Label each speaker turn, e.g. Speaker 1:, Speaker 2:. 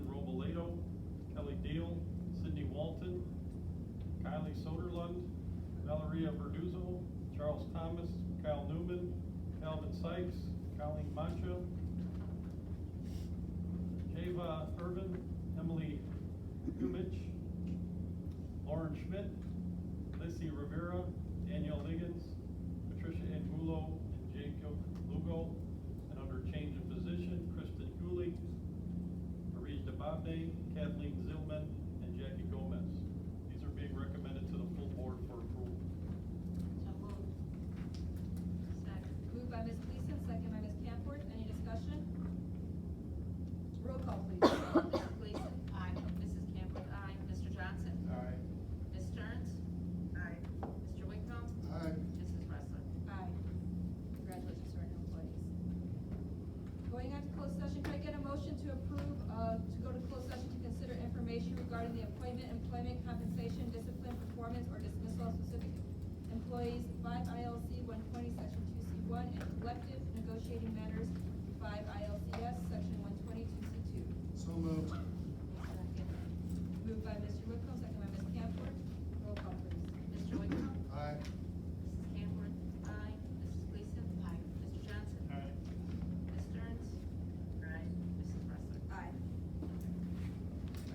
Speaker 1: Valeria Verduzco, Charles Thomas, Kyle Newman, Calvin Sykes, Colleen Mancha, Java Urban, Emily Humich, Lauren Schmidt, Lissy Rivera, Danielle Liggins, Patricia Angulo, and Jacob Lugo. And under change of position, Kristen Cooley, Marie DeBonne, Kathleen Zillman, and Jackie Gomez. These are being recommended to the full board for approval.
Speaker 2: So moved. Second.
Speaker 3: Moved by Ms. Gleason, second by Ms. Camworth, any discussion? Roll call, please.
Speaker 2: Mrs. Gleason? Aye. Mrs. Campbell? Aye. Mr. Johnson?
Speaker 4: Aye.
Speaker 2: Ms. Sterns? Aye. Mr. Wickham?
Speaker 4: Aye.
Speaker 2: Mrs. Wrestler?
Speaker 3: Aye. Congratulations to our new employees. Going on to closed session, can I get a motion to approve, uh, to go to closed session to consider information regarding the appointment, employment, compensation, discipline, performance, or dismissal of specific employees, five ILC one twenty, section two C one, and collective negotiating matters, five ILCS, section one twenty, two C two.
Speaker 4: So moved.